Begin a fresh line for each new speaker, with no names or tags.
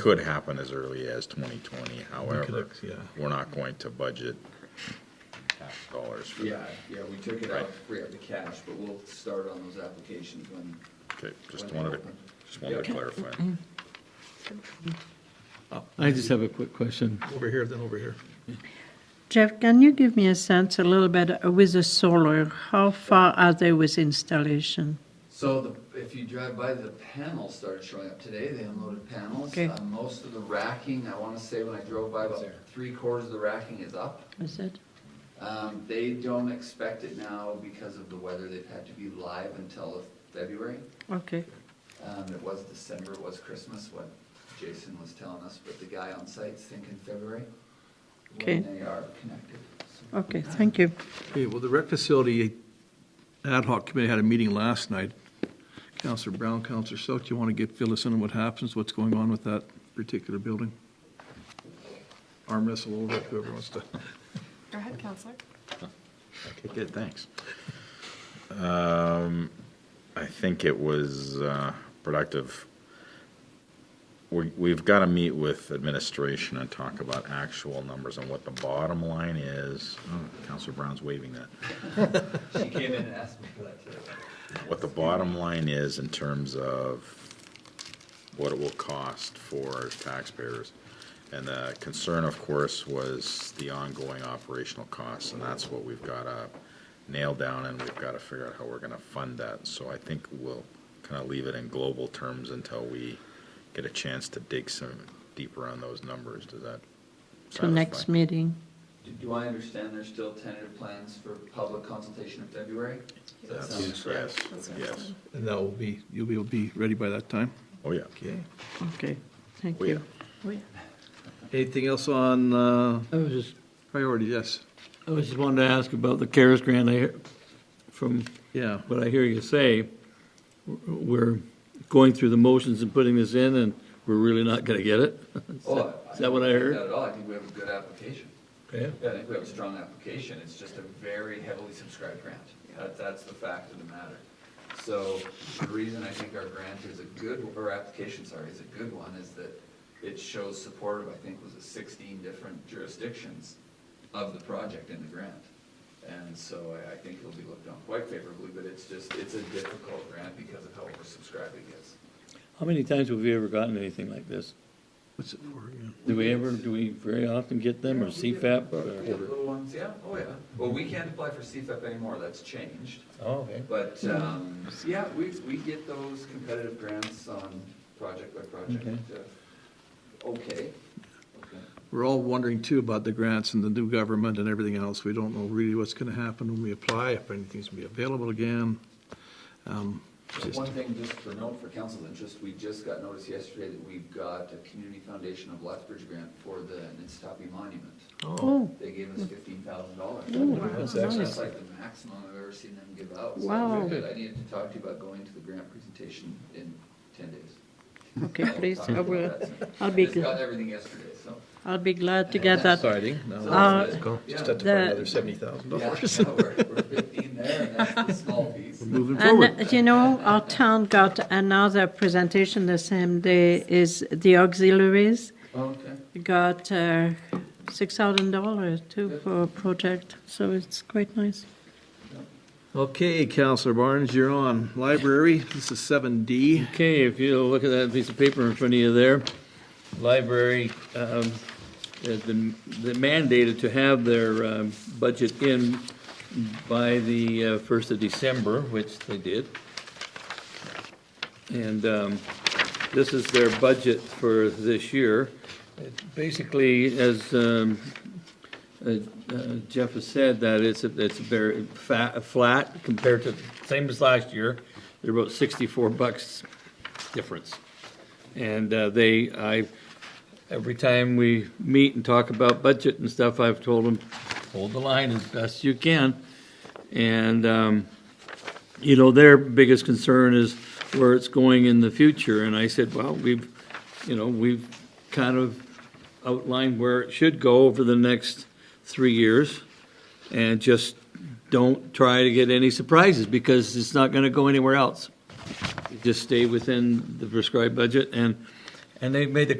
could happen as early as twenty twenty, however,
ex- yeah.
we're not going to budget tax dollars for
Yeah,
that.
yeah, we took it
Right.
out, to free up the cash, but we'll start on those applications when,
Okay, just wanted to, just wanted to clarify.
I just have a quick question.
Over here, then over here.
Jeff, can you give me a sense a little bit uh, with the solar? How far are they with installation?
so the, if you drive by, the panels started showing up today, they unloaded panels.
Okay.
Uh, Most of the racking, I wanna say when I drove by, about three quarters of the racking is up.
Is it?
Um, they don't expect it now because of the weather, they've had to be live until February.
Okay.
Um, it was December, it was Christmas, what Jason was telling us, but the guy on site's thinking February.
Okay.
When they are connected. So-
Okay, thank you.
Okay, well, the rec facility ad hoc committee had a meeting last night. Counselor Brown, Counselor Silk, do you want to get, fill us in on what happens, what's going on with that particular building? Arm wrestle over it, whoever wants to.
Go ahead, Counselor.
Okay, good, thanks. Um, I think it was, uh, productive. We, we've gotta meet with administration and talk about actual numbers and what the bottom line is. Oh, Counselor Brown's waving that.
She came in and asked me for that today.
what the bottom line is in terms of what it will cost for taxpayers. And the concern, of course, was the ongoing operational costs, and that's what we've got to nail down, and we've got to figure out how we're going to fund that. So I think we'll kind of leave it in global terms until we get a chance to dig some deeper on those numbers. Does that
So next
satisfy?
meeting.
Do- Do I understand there's still tentative plans for public consultation in February? Does that sound
That's-
correct?
That's
Yes,
what I
yes.
said.
And that will be, you'll be, you'll be ready by that time?
Oh, yeah.
Okay.
Okay, thank
Oh, yeah.
you. Oh, yeah.
Anything else on, uh,
I was just,
priority, yes?
I was just wanted to ask about the CARES grant. I, hear- from
Yeah.
what I hear you say, we're going through the motions and putting this in, and we're really not going to get it? Is
Oh,
that- Is that what I heard?
Not at all, I think we have a good application.
Okay.
I think we have a strong application, it's just a very heavily subscribed grant. That, that's the fact of the matter. So the reason I think our grant is a good, or application, sorry, is a good one, is that it shows support of, I think, was it sixteen different jurisdictions of the project in the grant. And so I, I think it'll be looked on quite favorably, but it's just, it's a difficult grant because of how oversubscribed it is.
How many times have we ever gotten anything like this?
What's it for, yeah?
Do we ever, do we very often get them, or CFAP?
We have
or-
little ones, yeah, oh yeah. Well, we can't apply for CFAP anymore, that's changed.
Oh, okay.
But, um, yeah, we, we get those competitive grants on project by project.
Okay.
uh, Okay.
We're all wondering too about the grants and the new government and everything else. We don't know really what's going to happen when we apply, if anything's going to be available again. Um,
But
just-
One thing just for note for council's interest, we just got notice yesterday that we've got a Community Foundation of Lethbridge grant for the Nistapi Monument.
Oh,
Oh,
They gave us fifteen thousand dollars.
that's
That's
nice.
like the maximum I've ever seen them give out. So
Wow.
good. I needed to talk to you about going to the grant presentation in ten days.
okay, please,
Talk
I
about
will,
that soon.
I'll
I
be,
just
gl-
got everything yesterday, so.
I'll be glad to get that.
exciting. Now
Uh,
let's go. Just have
yeah.
to find
The-
another seventy thousand
Yeah,
dollars.
no, we're, we're fifteen there, and that's the small piece.
Moving
And,
forward.
uh, you know, our town got another presentation the same day is the auxiliaries.
Okay.
Got uh, $6,000 too for a project, so it's quite nice.
Okay, Counselor Barnes, you're on. Library, this is seven D.
Okay, if you look at that piece of paper in front of you there, library um, has been been mandated to have their um, budget in by the uh, first of December, which they did. And um, this is their budget for this year. It Basically, as um, uh, uh, Jeff has said that it's, it's very fa- flat compared to, same as last year. They're about sixty-four bucks difference. And uh, they, I, every time we meet and talk about budget and stuff, I've told them, hold the line as best you can. And, um, you know, their biggest concern is where it's going in the future. And I said, well, we've, you know, we've kind of outlined where it should go over the next three years. And just don't try to get any surprises because it's not going to go anywhere else. Just stay within the prescribed budget and, and they made the